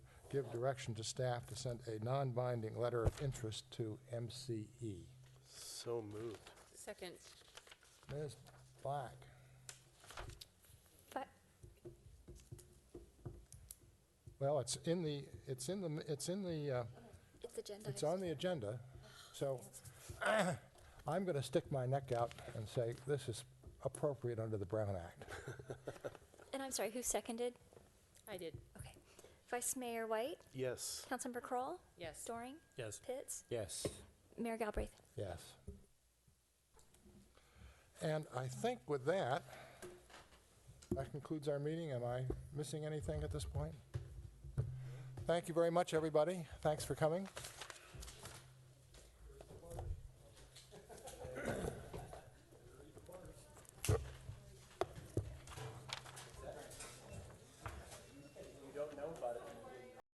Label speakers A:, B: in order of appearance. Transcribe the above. A: give direction to staff to send a non-binding letter of interest to E. MCE.
B: So moved.
C: Second.
A: Ms. Black,
D: But
A: well, it's in the, it's in the, it's in the, uh,
D: it's agenda.
A: it's on the agenda, so I'm going to stick my neck out and say this is appropriate under the Brown Act.
D: And I'm sorry, who seconded?
C: I did,
D: Okay. Vice Mayor White,
B: Yes.
D: Councilmember Kroll,
C: yes.
D: Doring,
B: Yes.
D: Pitts,
B: Yes.
D: Mayor Galbraith.
A: Yes. And I think with that, that concludes our meeting. Am I missing anything at this point? Thank you very much, everybody. Thanks for coming.